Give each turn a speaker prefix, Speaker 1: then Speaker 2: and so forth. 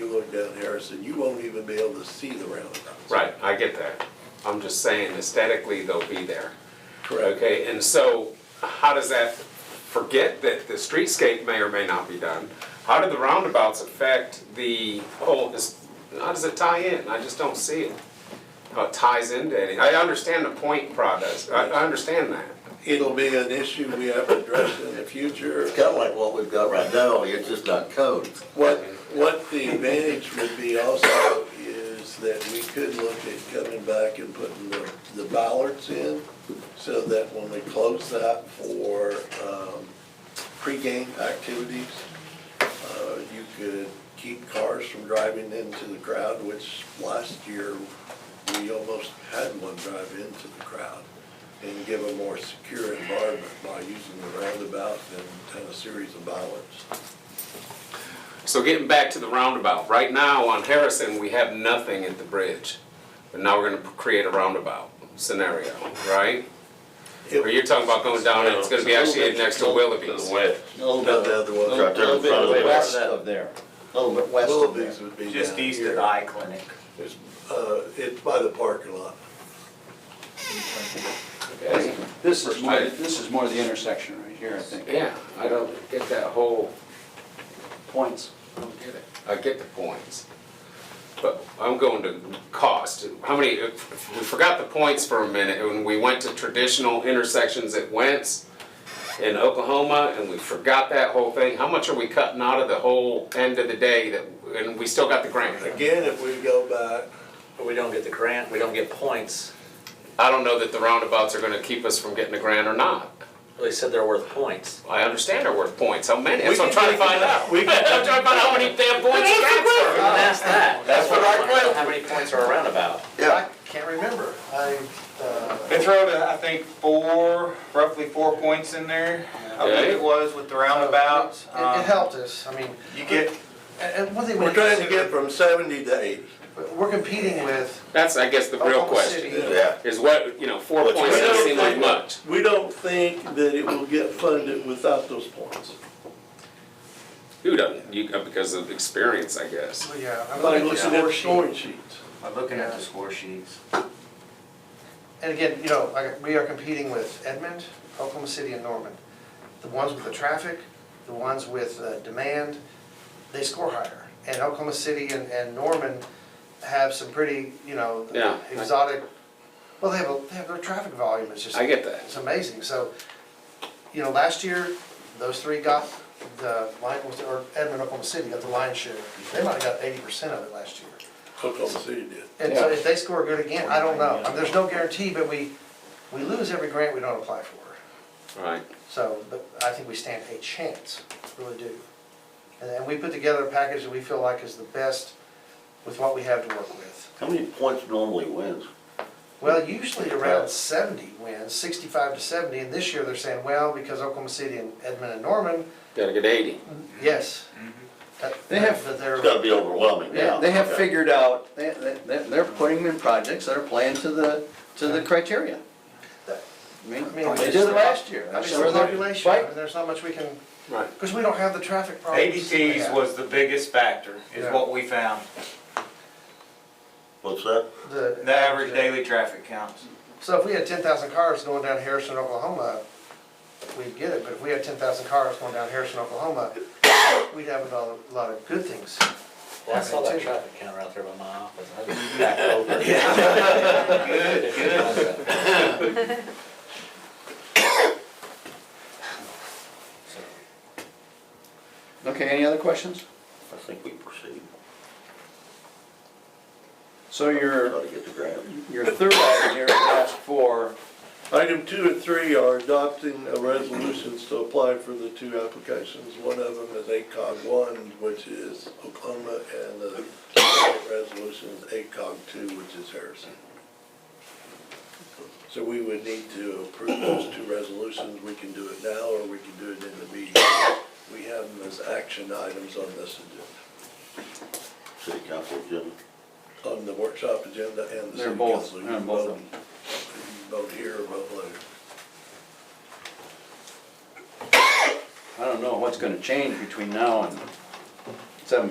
Speaker 1: down Harrison, you won't even be able to see the roundabouts.
Speaker 2: Right, I get that. I'm just saying aesthetically, they'll be there.
Speaker 1: Correct.
Speaker 2: Okay, and so how does that, forget that the streetscape may or may not be done. How do the roundabouts affect the whole, this- how does it tie in? I just don't see it. How it ties into any, I understand the point product, I, I understand that.
Speaker 1: It'll be an issue we have to address in the future.
Speaker 3: It's kind of like what we've got right now, only it's just not code.
Speaker 1: What, what the advantage would be also is that we could look at coming back and putting the, the bollards in so that when we close that for, um, pregame activities, uh, you could keep cars from driving into the crowd, which last year we almost had one drive into the crowd and give a more secure environment by using the roundabout and, and a series of bollards.
Speaker 2: So getting back to the roundabout, right now on Harrison, we have nothing at the bridge. But now we're gonna create a roundabout scenario, right? Or you're talking about going down and it's gonna be actually next to Willoughby's.
Speaker 3: No,
Speaker 1: No, the other one.
Speaker 3: Right there in front of the
Speaker 4: West
Speaker 3: west,
Speaker 4: of there,
Speaker 3: a little bit west of there.
Speaker 1: Willoughby's would be down
Speaker 5: Just east
Speaker 1: here.
Speaker 5: of the eye clinic.
Speaker 1: It's, uh, it's by the parking lot.
Speaker 2: Okay.
Speaker 4: this is more,
Speaker 2: I-
Speaker 4: this is more the intersection right here, I think,
Speaker 2: Yeah, I don't get that whole,
Speaker 4: points.
Speaker 2: I don't get it. I get the points. But I'm going to cost. How many, if- we forgot the points for a minute, when we went to traditional intersections at Wentz in Oklahoma, and we forgot that whole thing. How much are we cutting out of the whole end of the day that, and we still got the grant?
Speaker 1: Again, if we go back,
Speaker 5: But we don't get the grant, we don't get points.
Speaker 2: I don't know that the roundabouts are gonna keep us from getting the grant or not.
Speaker 5: They said they're worth points.
Speaker 2: I understand they're worth points, how many, that's
Speaker 1: We
Speaker 2: what I'm
Speaker 1: can
Speaker 2: trying to
Speaker 1: take
Speaker 2: find
Speaker 1: it
Speaker 2: out.
Speaker 1: out.
Speaker 2: I'm
Speaker 1: We can-
Speaker 2: trying to find out how many damn points the grants are.
Speaker 5: Even ask that. Oh, That's
Speaker 2: what I
Speaker 5: want. How many points are a roundabout?
Speaker 3: Yeah,
Speaker 6: Can't remember. I, uh,
Speaker 7: They throw, the- I think, four, roughly four points in there, I believe
Speaker 2: Okay.
Speaker 7: it was with the roundabouts.
Speaker 6: It it
Speaker 7: Um,
Speaker 6: helped us, I mean,
Speaker 7: You get,
Speaker 6: and and one thing we
Speaker 1: we're trying to get from seventy to eighty.
Speaker 6: We're competing with
Speaker 2: That's, I guess, the real
Speaker 6: Oklahoma
Speaker 2: question.
Speaker 6: City.
Speaker 3: yeah.
Speaker 2: is what, you know, four
Speaker 3: What you
Speaker 2: points
Speaker 1: We
Speaker 2: doesn't
Speaker 1: don't
Speaker 2: seem like
Speaker 1: think-
Speaker 2: much.
Speaker 1: We don't think that it will get funded without those points.
Speaker 2: Who doesn't? You, uh, because of experience, I guess.
Speaker 6: Well, Yeah, I'm
Speaker 1: By
Speaker 6: looking
Speaker 1: looking
Speaker 6: at
Speaker 1: at
Speaker 6: the
Speaker 1: the
Speaker 6: score sheet.
Speaker 1: scoring sheets.
Speaker 5: I'm looking at the score sheets.
Speaker 6: And again, you know, like, we are competing with Edmond, Oklahoma City, and Norman. The ones with the traffic, the ones with uh, demand, they score higher. And Oklahoma City and, and Norman have some pretty, you know,
Speaker 2: Yeah.
Speaker 6: exotic, well, they have, a they have their traffic volume is just.
Speaker 2: I get that.
Speaker 6: It's amazing, so, you know, last year, those three got the lion, or Edmond, Oklahoma City got the lion's share. They might have got eighty percent of it last year.
Speaker 1: Oklahoma City did.
Speaker 6: And so if they score good again, I don't know. I mean, There's no guarantee, but we, we lose every grant we don't apply for.
Speaker 2: Right.
Speaker 6: So, but I think we stand a chance, really do. And then we put together a package that we feel like is the best with what we have to work with.
Speaker 3: How many points normally wins?
Speaker 6: Well, usually around seventy wins, sixty-five to seventy, and this year they're saying, well, because Oklahoma City and Edmond and Norman,
Speaker 2: Gotta get eighty.
Speaker 6: yes. That-
Speaker 4: They have-
Speaker 6: But
Speaker 3: It's gotta
Speaker 6: they're,
Speaker 3: be overwhelming now.
Speaker 4: They have figured out, they, they, they're putting in projects that are playing to the, to the criteria. I mean,
Speaker 6: I mean,
Speaker 4: they did it last year.
Speaker 6: I mean, it's
Speaker 4: Sure
Speaker 6: the
Speaker 4: they're-
Speaker 6: population, I
Speaker 4: right?
Speaker 6: mean, there's not much we can,
Speaker 2: Right.
Speaker 6: because we don't have the traffic problems. they
Speaker 7: ADTs
Speaker 6: have.
Speaker 7: was the biggest factor, is
Speaker 6: Yeah.
Speaker 7: what we found,
Speaker 3: What's that?
Speaker 6: The.
Speaker 7: the average daily traffic counts.
Speaker 6: So if we had ten thousand cars going down Harrison, Oklahoma, we'd get it, but if we had ten thousand cars going down Harrison, Oklahoma, we'd have a lot, a lot of good things.
Speaker 5: Well, I saw that traffic counter out there by my office. I was back over. Good, good.
Speaker 4: Okay, any other questions?
Speaker 3: I think we proceed.
Speaker 4: So your,
Speaker 3: Try to get the grant.
Speaker 4: your third item here is ask for,
Speaker 1: Item two and three are adopting a resolutions to apply for the two applications. One of them is ACOG one, which is Oklahoma, and the second resolution is ACOG two, which is Harrison. So we would need to approve those two resolutions. We can do it now, or we can do it in the meeting. We have them as action items on this agenda,
Speaker 3: City council agenda.
Speaker 1: on the workshop agenda and the
Speaker 4: they're
Speaker 1: city
Speaker 4: both,
Speaker 1: council. You
Speaker 4: they're
Speaker 1: can
Speaker 4: both
Speaker 1: vote-
Speaker 4: of them.
Speaker 1: you can Vote here or vote later.
Speaker 4: I don't know what's gonna change between now and seven